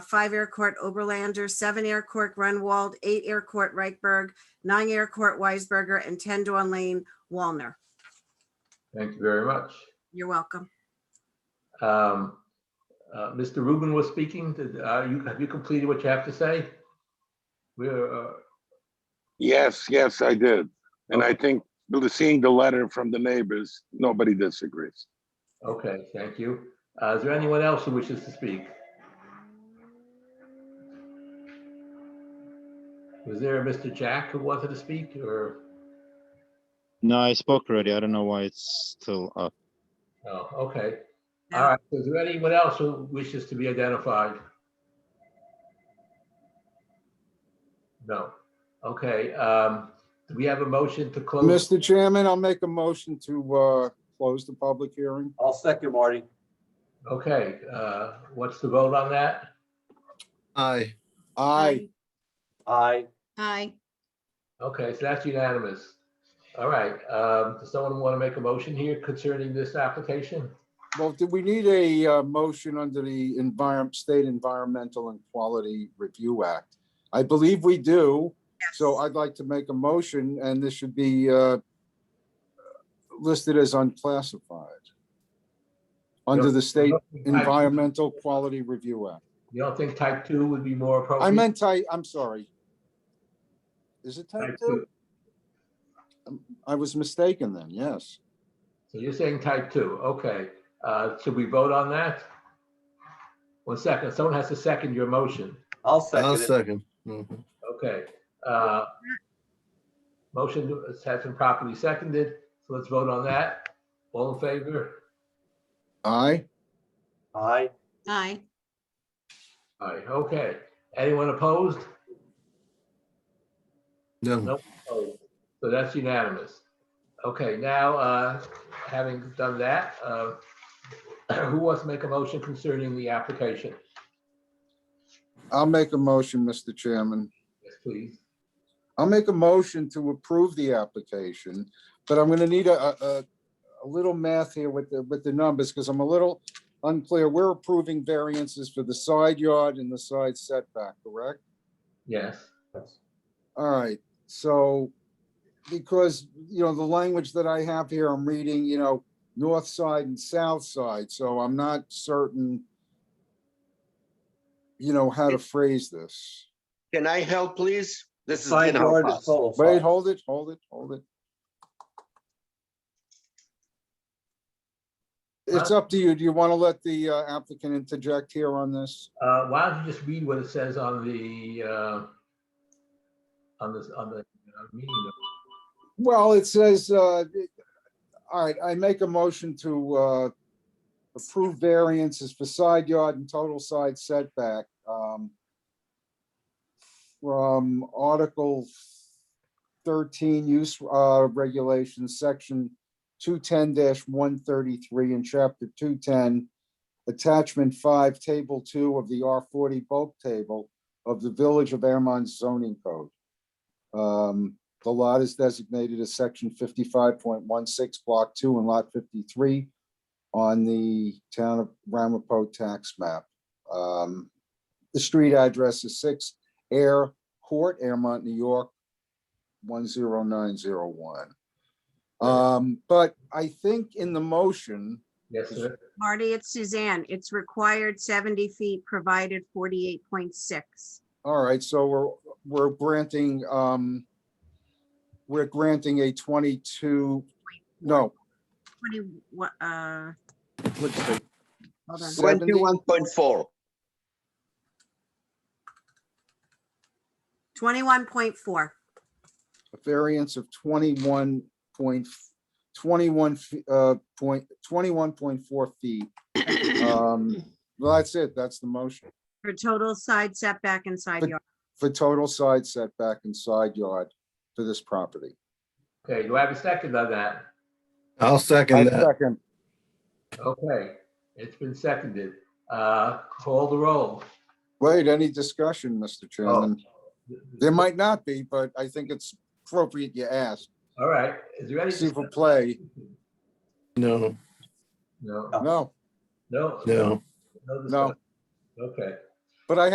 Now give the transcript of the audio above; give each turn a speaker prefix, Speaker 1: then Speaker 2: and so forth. Speaker 1: five Air Court Oberlander, seven Air Court Grunwald, eight Air Court Reichberg, nine Air Court Weisberger, and 10 Dawn Lane, Walner.
Speaker 2: Thank you very much.
Speaker 1: You're welcome.
Speaker 2: Um, uh, Mr. Rubin was speaking. Did, uh, you, have you completed what you have to say? We're, uh,
Speaker 3: Yes, yes, I did. And I think the- seeing the letter from the neighbors, nobody disagrees.
Speaker 2: okay, thank you. Uh, is there anyone else who wishes to speak? Was there a Mr. Jack who wanted to speak or,
Speaker 4: No, I spoke already. I don't know why it's still up.
Speaker 2: no, okay.
Speaker 1: No.
Speaker 2: All right, is there anyone else who wishes to be identified? No, okay, um, do we have a motion to close?
Speaker 5: Mr. Uh, Chairman, I'll make a motion to uh, close the public hearing.
Speaker 6: I'll second Marty.
Speaker 2: Okay, uh, what's the vote on that?
Speaker 7: Aye.
Speaker 5: Aye.
Speaker 6: Aye.
Speaker 8: Aye.
Speaker 2: Okay, so that's unanimous. All right, um, does someone want to make a motion here concerning this application?
Speaker 5: Well, do we need a uh, motion under the environment, State Environmental and Quality Review Act? I believe we do, so I'd like to make a motion, and this should be uh, listed as unclassified under the State Environmental Quality Review Act.
Speaker 2: You don't think type two would be more appropriate?
Speaker 5: I meant type, I'm sorry. Is it type
Speaker 2: Type
Speaker 5: two? I was mistaken then, yes.
Speaker 2: So you're saying type two, okay. Uh, should we vote on that? One second, someone has to second your motion.
Speaker 6: I'll
Speaker 7: I'll
Speaker 6: second it.
Speaker 7: second. Mhm.
Speaker 2: Okay, uh, motion has been properly seconded, so let's vote on that. All in favor?
Speaker 5: Aye.
Speaker 6: Aye.
Speaker 8: Aye.
Speaker 2: All right, okay. Anyone opposed?
Speaker 7: No,
Speaker 2: Oh, So that's unanimous. Okay, now, uh, having done that, uh, who wants to make a motion concerning the application?
Speaker 5: I'll make a motion, Mr. Chairman.
Speaker 2: Yes, please.
Speaker 5: I'll make a motion to approve the application, but I'm gonna need a, a, a little math here with the, with the numbers, because I'm a little unclear. We're approving variances for the side yard and the side setback, correct?
Speaker 2: Yes,
Speaker 5: All right, so, because, you know, the language that I have here, I'm reading, you know, north side and south side, so I'm not certain, you know, how to phrase this.
Speaker 9: Can I help, please? This is
Speaker 6: Side
Speaker 9: gonna help
Speaker 6: yard is
Speaker 9: us.
Speaker 6: total.
Speaker 5: Wait,
Speaker 6: side.
Speaker 5: hold it, hold it, hold it. It's up to you. Do you want to let the uh, applicant interject here on this?
Speaker 2: uh, why don't you just read what it says on the, uh, on this, on the uh, meeting? notes?
Speaker 5: Well, it says, uh, it- all right, I make a motion to, uh, approve variances for side yard and total side setback, um, from Article thirteen use, uh, regulations, section two ten one thirty-three and chapter two ten, attachment five, table two of the R forty bulk table of the Village of Airmont zoning code. Um, the lot is designated as section fifty-five point one six, block two and lot fifty-three on the town of Ramapo tax map. Um, The street address is six Air Court, Airmont, New York, one zero nine zero one. Um, but I think in the motion,
Speaker 2: Yes, sir.
Speaker 1: Marty, it's Suzanne. It's required 70 feet, provided 48.6.
Speaker 5: all right, so we're, we're granting, um, we're granting a twenty-two, no,
Speaker 1: What do you- what, uh,
Speaker 5: let's see.
Speaker 1: hold on.
Speaker 5: 70?
Speaker 9: Twenty-one point four.
Speaker 1: 21.4.
Speaker 5: a variance of twenty-one point, twenty-one, f- uh, point, twenty-one point four feet. Um, well, that's it. That's the motion
Speaker 1: For total side setback and side
Speaker 5: But-
Speaker 1: yard.
Speaker 5: for total side setback and side yard for this property.
Speaker 2: Okay, do I have a second on that?
Speaker 7: I'll
Speaker 5: I
Speaker 7: second that.
Speaker 5: second.
Speaker 2: Okay, it's been seconded. Uh, call the roll.
Speaker 5: Wait, any discussion, Mr. Chairman? There might not be, but I think it's appropriate you ask.
Speaker 2: All right, is there any?
Speaker 5: See for play.
Speaker 7: No,
Speaker 2: No,
Speaker 5: No,
Speaker 2: no.
Speaker 7: no.
Speaker 2: no
Speaker 5: no,
Speaker 2: discussion. Okay.
Speaker 5: but I